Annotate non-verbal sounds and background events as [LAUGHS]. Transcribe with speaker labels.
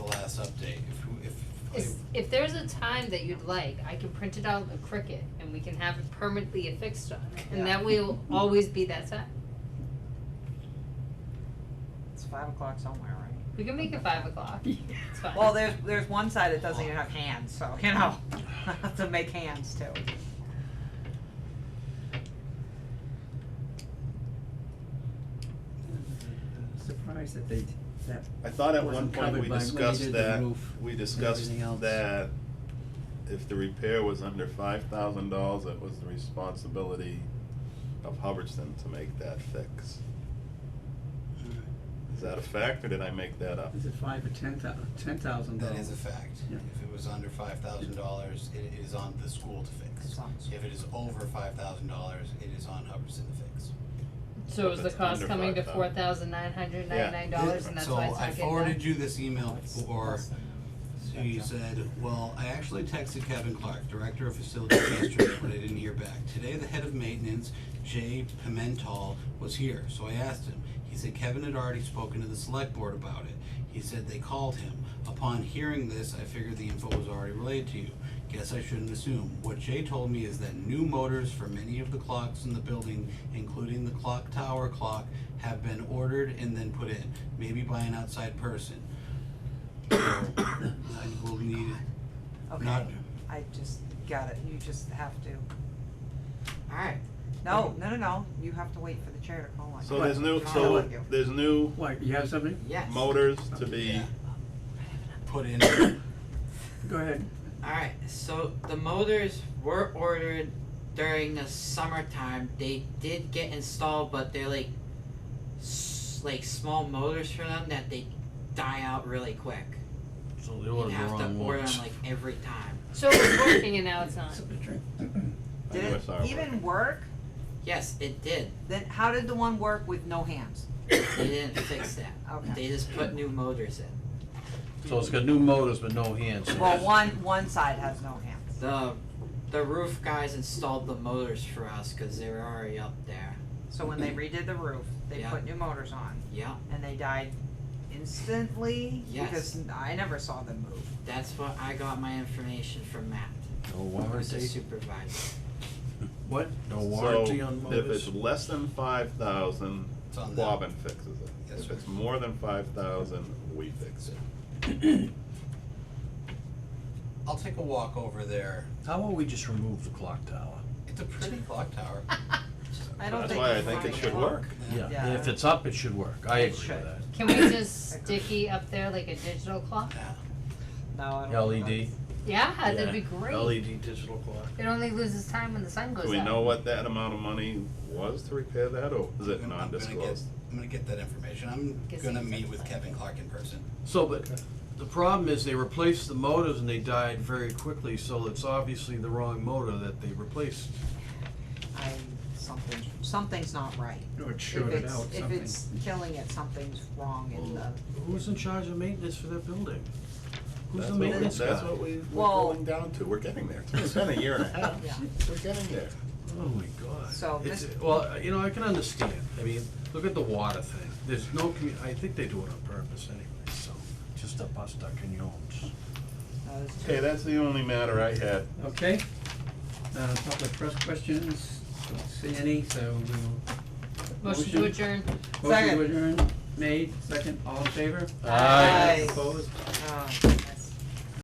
Speaker 1: if there's a time that you'd like, I can print it out in Cricut and we can have it permanently affixed on it, and that way it'll always be that time.
Speaker 2: It's five o'clock somewhere, right?
Speaker 1: We can make it five o'clock. It's fine.
Speaker 2: Well, there's, there's one side that doesn't even have hands, so, you know, [LAUGHS] I have to make hands too.
Speaker 3: Surprised that they, that,
Speaker 4: I thought at one
Speaker 3: Wasn't
Speaker 4: point
Speaker 3: covered
Speaker 4: we
Speaker 3: by- when they
Speaker 4: discussed
Speaker 3: did the
Speaker 4: that,
Speaker 3: roof
Speaker 4: we
Speaker 3: and
Speaker 4: discussed
Speaker 3: everything else.
Speaker 4: that if the repair was under five thousand dollars, it was the responsibility of Hubbardston to make that fix. Is that a fact, or did I make that up?
Speaker 3: is it five or ten thou- ten thousand
Speaker 5: That
Speaker 3: dollars?
Speaker 5: is a fact.
Speaker 3: Yeah.
Speaker 5: If it was under five thousand dollars, it is on the school to
Speaker 2: It's
Speaker 5: fix.
Speaker 2: on the
Speaker 5: If it is over five thousand dollars, it is on Hubbardson to fix.
Speaker 1: So is
Speaker 4: If
Speaker 1: the
Speaker 4: it's
Speaker 1: cost
Speaker 4: under
Speaker 1: coming to four
Speaker 4: 5,000.
Speaker 1: thousand nine hundred ninety-nine dollars and that's why it's not getting
Speaker 5: So I forwarded
Speaker 1: done?
Speaker 5: you this email for, so you said, well, I actually texted Kevin Clark, Director of Facilities yesterday, but I didn't hear back. Today, the head of maintenance, Jay Pimental, was here, so I asked him. He said Kevin had already spoken to the select board about it. He said they called him. Upon hearing this, I figured the info was already relayed to you. Guess I shouldn't assume. What Jay told me is that new motors for many of the clocks in the building, including the clock tower clock, have been ordered and then put in, maybe by an outside person. So, I will need,
Speaker 2: Okay,
Speaker 5: not,
Speaker 2: I just got it, you just have to. Alright, no, no, no, no, you have to wait for the chair to call on.
Speaker 4: So
Speaker 2: you.
Speaker 4: there's new,
Speaker 2: I'll call
Speaker 4: so
Speaker 2: on you.
Speaker 4: there's new
Speaker 3: What, you have something?
Speaker 6: Yes.
Speaker 4: motors to be,
Speaker 5: yeah. Put in,
Speaker 3: Go ahead.
Speaker 6: Alright, so the motors were ordered during the summertime. They did get installed, but they're like s- like small motors for them that they die out really quick.
Speaker 7: So they
Speaker 6: You
Speaker 7: ordered the
Speaker 6: have to
Speaker 7: wrong
Speaker 6: order
Speaker 7: ones.
Speaker 6: them like every time.
Speaker 1: So it's working and now it's not.
Speaker 4: I knew I
Speaker 2: Did
Speaker 4: saw
Speaker 2: it
Speaker 4: it
Speaker 2: even work?
Speaker 6: Yes, it did.
Speaker 2: Then how did the one work with no hands?
Speaker 6: They
Speaker 7: [COUGHS]
Speaker 6: didn't fix that.
Speaker 2: Okay.
Speaker 6: They just put new motors in.
Speaker 7: So it's got new motors but no hands. so
Speaker 2: Well,
Speaker 7: it's-
Speaker 2: one, one side has no hands.
Speaker 6: The the roof guys installed the motors for us because they were already up there.
Speaker 2: So when they redid the roof, they
Speaker 6: Yeah.
Speaker 2: put new motors on
Speaker 6: Yeah,
Speaker 2: and they died instantly
Speaker 6: Yes.
Speaker 2: because I never saw them move.
Speaker 6: that's what I got my information from Matt,
Speaker 7: No
Speaker 6: who's the
Speaker 7: warranty,
Speaker 6: supervisor.
Speaker 7: what? No
Speaker 4: so
Speaker 7: warranty on
Speaker 4: if
Speaker 7: motors?
Speaker 4: it's less than five thousand,
Speaker 5: it's on them.
Speaker 4: Quabbin fixes it.
Speaker 5: Yes,
Speaker 4: If
Speaker 5: sir.
Speaker 4: it's more than five thousand, we fix it.
Speaker 5: I'll take a walk over there.
Speaker 7: How about we just remove the clock tower?
Speaker 5: It's a pretty clock tower.
Speaker 2: I don't
Speaker 4: That's
Speaker 2: think
Speaker 4: why I
Speaker 2: it's
Speaker 4: think it
Speaker 2: funny.
Speaker 4: should work.
Speaker 2: Yeah.
Speaker 7: Yeah, if it's up, it should work, I
Speaker 2: It
Speaker 7: agree with
Speaker 2: should.
Speaker 7: that.
Speaker 1: Can we just sticky up there like a digital clock?
Speaker 2: No, I don't. think
Speaker 7: LED.
Speaker 1: Yeah, that'd be great.
Speaker 7: LED E digital clock.
Speaker 1: It only loses time when the sun goes
Speaker 4: Do we
Speaker 1: up.
Speaker 4: know what that amount of money was to repair that, or is it
Speaker 5: I'm- I'm gonna get-
Speaker 4: non-disclosed?
Speaker 5: I'm gonna get that information. I'm
Speaker 1: Guess
Speaker 5: gonna
Speaker 1: he's
Speaker 5: meet with
Speaker 1: upset.
Speaker 5: Kevin Clark in person.
Speaker 7: So, but the problem is they replaced the motors and they died very quickly, so it's obviously the wrong motor that they replaced.
Speaker 2: that's- I, something, something's not right.
Speaker 3: Or it's
Speaker 2: If
Speaker 3: shorted
Speaker 2: it's,
Speaker 3: out,
Speaker 2: if
Speaker 3: something.
Speaker 2: it's killing it, something's wrong in the,
Speaker 7: Who's in charge of maintenance for that building? Who's
Speaker 4: That's
Speaker 7: the
Speaker 4: what we-
Speaker 7: maintenance guy?
Speaker 4: That's what we, we're
Speaker 2: Well-
Speaker 4: going down to, we're getting there, it's been a year and a half,
Speaker 2: yeah.
Speaker 4: we're getting there.
Speaker 7: Oh my god.
Speaker 2: So
Speaker 7: It's, uh,
Speaker 2: this-
Speaker 7: well, you know, I can understand, I mean, look at the water thing, there's no commu- I think they do it on purpose anyway, so, just a bust our canyons.
Speaker 2: uh, it's
Speaker 4: Okay, that's the only matter I had.
Speaker 3: Okay, uh, public press questions, don't see any, so we will.
Speaker 1: Motion to adjourn.
Speaker 3: Motion
Speaker 2: Second.
Speaker 3: to adjourn made, second, all in favor?
Speaker 2: Aye.
Speaker 3: Opposed?
Speaker 2: just, uh,